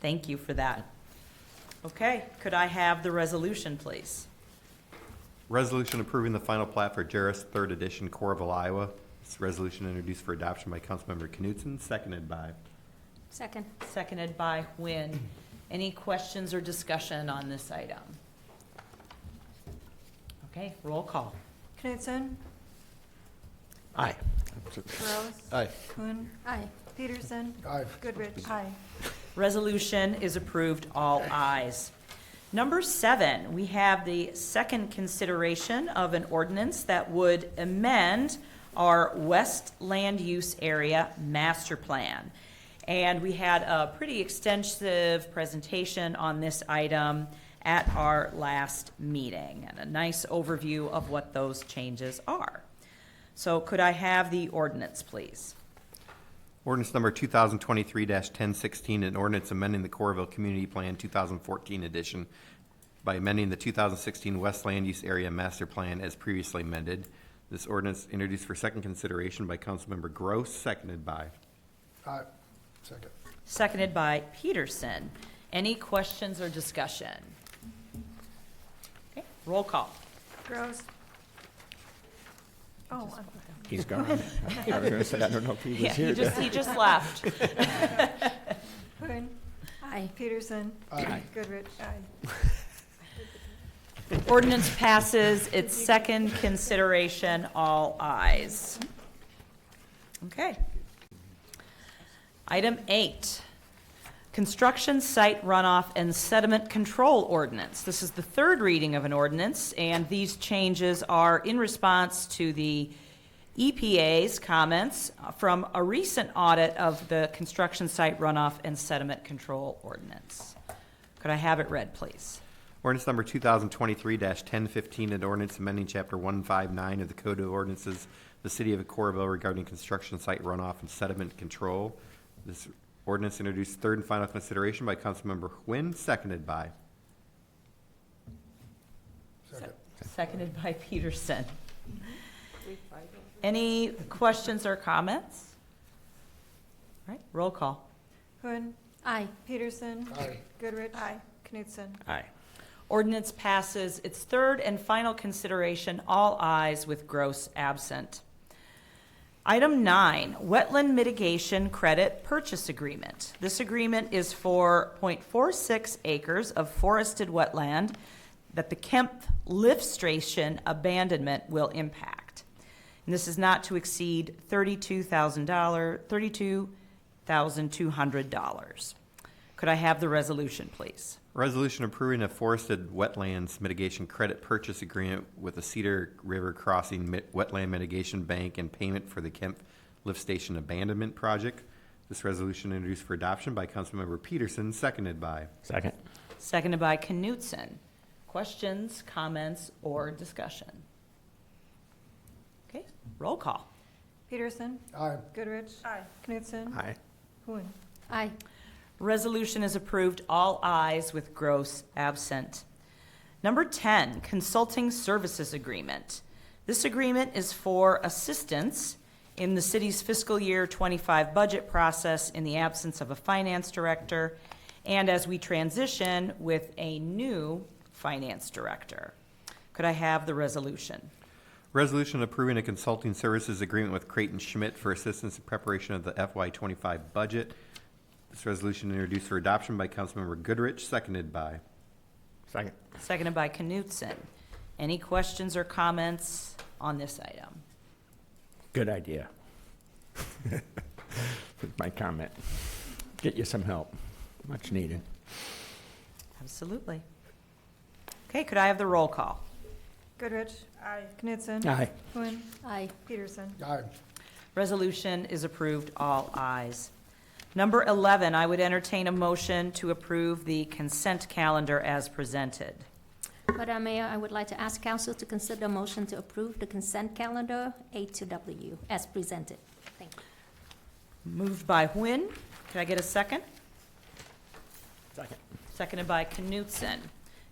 Thank you for that. Okay, could I have the resolution, please? Resolution approving the final plat for Jarris Third Edition, Correville, Iowa. This resolution introduced for adoption by Councilmember Knutson, seconded by. Second. Seconded by Wynn. Any questions or discussion on this item? Okay, roll call. Knutson? Aye. Gross? Aye. Kuhn? Aye. Peterson? Aye. Goodrich? Aye. Resolution is approved, all ayes. Number seven, we have the second consideration of an ordinance that would amend our West Land Use Area Master Plan. And we had a pretty extensive presentation on this item at our last meeting, and a nice overview of what those changes are. So could I have the ordinance, please? Ordinance number two thousand twenty-three ten sixteen, an ordinance amending the Correville Community Plan two thousand fourteen edition by amending the two thousand sixteen West Land Use Area Master Plan as previously amended. This ordinance introduced for second consideration by Councilmember Gross, seconded by. Aye. Second. Seconded by Peterson. Any questions or discussion? Okay, Roll call. Gross? Oh, I'm- He's gone. I was gonna say, I don't know if he Yeah, was he here. just, he just left. Kuhn? Aye. Peterson? Aye. Goodrich? Aye. Ordinance passes its second consideration, all ayes. Okay. Item eight, construction site runoff and sediment control ordinance. This is the third reading of an ordinance, and these changes are in response to the EPA's comments from a recent audit of the construction site runoff and sediment control ordinance. Could I have it read, please? Ordinance number two thousand twenty-three ten fifteen, an ordinance amending chapter one five nine of the Code of Ordinances, of the City of Correville regarding construction site runoff and sediment control. This ordinance introduced third and final consideration by Councilmember Quinn, seconded by. Seconded by Peterson. Any questions or comments? All right, roll call. Kuhn? Aye. Peterson? Aye. Goodrich? Aye. Knutson? Aye. Ordinance passes its third and final consideration, all eyes with Gross absent. Item nine, Wetland Mitigation Credit Purchase Agreement. This agreement is for 0.46 acres of forested wetland that the Kemp Lift Station abandonment will impact. And this is not to exceed $32,000, $32,200. Could I have the resolution, please? Resolution approving a forested wetlands mitigation credit purchase agreement with the Cedar River Crossing Mi- Wetland Mitigation Bank and payment for the Kemp Lift Station Abandonment Project. This resolution introduced for adoption by Councilmember Peterson, seconded by. Second. Seconded by Knutson. Questions, comments, or discussion? Okay, roll call. Peterson? Aye. Goodrich? Aye. Knutson? Aye. Kuhn? Aye. Resolution is approved, all ayes with Gross absent. Number 10, Consulting Services Agreement. This agreement is for assistance in the city's fiscal year 25 budget process in the absence of a finance director and as we transition with a new finance director. Could I have the resolution? Resolution approving a consulting services agreement with Creighton Schmidt for assistance in preparation of the FY twenty-five budget. This resolution introduced for adoption by Councilmember Goodrich, seconded by. Second. Seconded by Knutson. Any questions or comments on this item? Good idea. With my comment. Get you some help. Much needed. Absolutely. Okay, could I have the roll call? Goodrich? Aye. Knutson? Aye. Kuhn? Aye. Peterson? Aye. Resolution is approved, all ayes. Number 11, I would entertain a motion to approve the consent calendar as presented. Madam Mayor, I would like to ask council to consider a motion to approve the consent calendar A to W as presented. Thank you. Moved by Nguyen. Could I get a second? Second. Seconded by Knutson.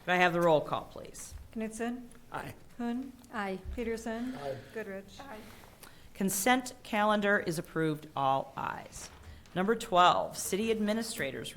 Could I have the roll call, please? Knutson? Aye. Kuhn? Aye. Peterson? Aye. Goodrich? Aye. Consent calendar is approved, all ayes. Number 12, City Administrator's